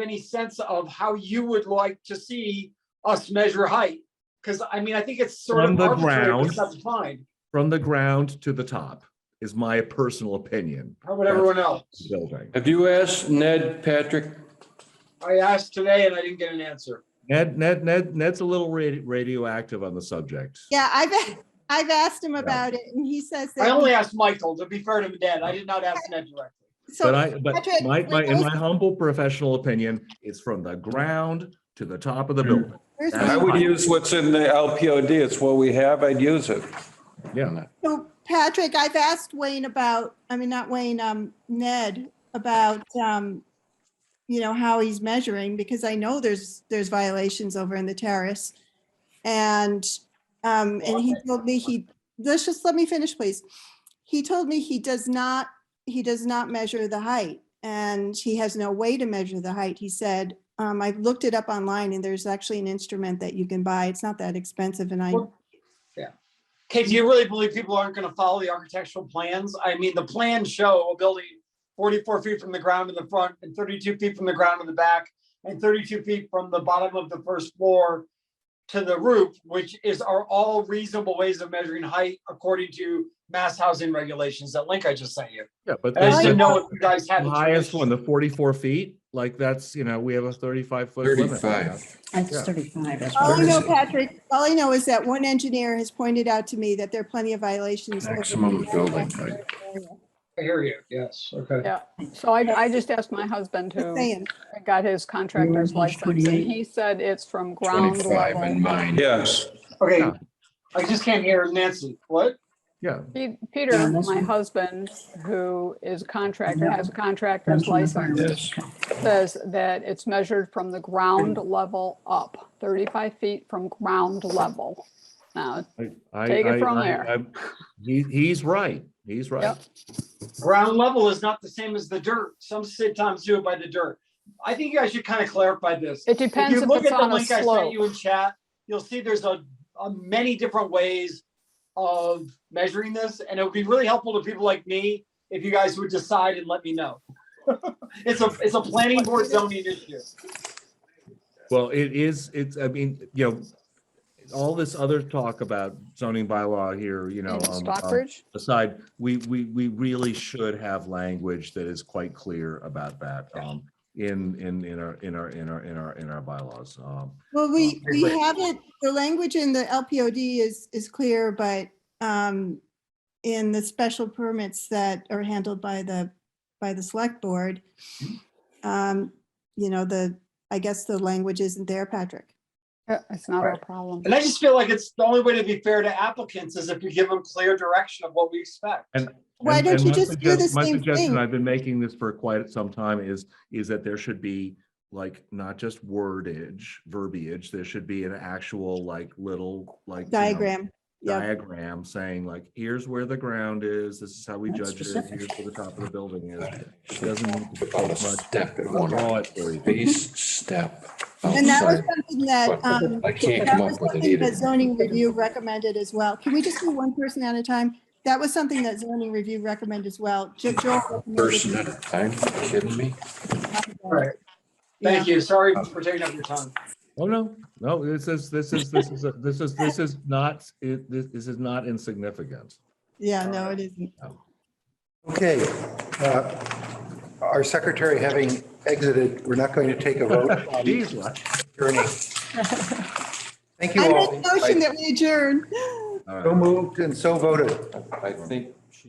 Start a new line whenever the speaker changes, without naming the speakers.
any sense of how you would like to see us measure height? Because I mean, I think it's sort
From
of
the
arbitrary, but
ground.
it's not defined.
from the ground to the top is my personal opinion.
How would everyone else?
Building.
Have you asked Ned, Patrick?
I asked today and I didn't get an answer.
Ned, Ned, Ned, Ned's a little radi- radioactive on the subject.
Yeah, I've, I've asked him about it and he says
I only
that,
asked Michael, to be fair to Ned. I did not ask Ned directly.
But
so,
I, but
Patrick,
my, my, in
when
my humble professional opinion, it's from the ground to the top of the building.
where's
I
I
the-
would use what's in the LPOD. It's what we have. I'd use it.
Yeah,
so Patrick, I've asked Wayne about, I mean, not Wayne, um, Ned, about, um, you know, how he's measuring, because I know there's, there's violations over in the terrace. And, um, and he told me he, let's just, let me finish, please. He told me he does not, he does not measure the height and he has no way to measure the height. He said, um, I looked it up online and there's actually an instrument that you can buy. It's not that expensive and I,
Well, Kate, do you really believe people aren't going to follow the architectural plans? I mean, the plans show a building 44 feet from the ground in the front and 32 feet from the ground in the back and 32 feet from the bottom of the first floor to the roof, which is are all reasonable ways of measuring height according to mass housing regulations that link I just sent you.
yeah, but
And I
the
didn't know if you guys had.
the
the
highest
choice.
one, the forty-four feet, like that's, you know, we have a thirty-five foot limit.
That's
Yeah.
35. That's
all Oh, I know,
what
Patrick, all I know is that one engineer has pointed out to me that there are plenty of violations. over in the
Maximum building height.
area.
I hear you. Yes, okay.
Yeah, so I, I just asked my husband
Just
who
saying.
got his contractor's
Where's his
license, and
28?
he said it's from ground level.
Yes.
Okay,
Yeah.
I just can't hear Nancy. What?
Yeah,
Pe-
Yeah,
Peter,
that's
my
right.
husband, who is a contractor, has a contractor's license,
Yes.
says that it's measured from the ground level up, 35 feet from ground level. Now,
I, I,
Take it
I-
from
I-
there.
I'm- He, he's right, he's right.
Yep.
Ground level is not the same as the dirt. Some sometimes do it by the dirt. I think you guys should kind of clarify this.
it
If
depends
you
if
look
it's
at the
on a
link I sent
slope.
you in chat, you'll see there's a, a many different ways of measuring this, and it would be really helpful to people like me if you guys would decide and let me know. It's a, it's a planning board zoning issue.
Well, it is, it's, I mean, you know, all this other talk about zoning bylaw here, you know.
In
um, um,
Stockbridge,
Aside, we, we, we really should have language that is quite clear about that, um, in, in, in our, in our, in our, in our, in our bylaws. Um,
Well, we,
I
we
agree.
have it, the language in the LPOD is, is clear, but um, in the special permits that are handled by the, by the select board, um, you know, the, I guess the language isn't there, Patrick.
Yeah, it's not our problem.
And I just feel like it's the only way to be fair to applicants is if you give them clear direction of what we expect.
And-
Why
and-
don't
and
you
my
just do
suggest-
the
My
same
suggestion,
thing?
I've been making this for quite some time, is, is that there should be like, not just wordage, verbiage, there should be an actual like little, like. you know,
Diagram. Yeah,
diagram saying like, here's where the ground is, this is how we
That's
judge it,
specific.
here's where the top of the building is. It doesn't need to
About a
take much.
step in
I'll
one
draw it for you.
base step
and that was
outside.
something that, um,
I can't
that
come
was
up with it
something that
either.
zoning review recommended as well. Can we just do one person at a time? That was something that zoning review recommended as well. Jo- Joel recommended-
Person at a time, Are you kidding me?
All right,
Yeah.
thank you. Sorry for taking up your time.
Oh, no, no, this is, this is, this is, a- this is, this is not, it, this, this is not insignificant.
Yeah, no, it isn't.
Okay, uh, our secretary having exited, we're not going to take a vote on
Geez, what?
adjourning. Thank
I
you
make a
all.
motion that we adjourn.
All right.
So moved and so voted.
I think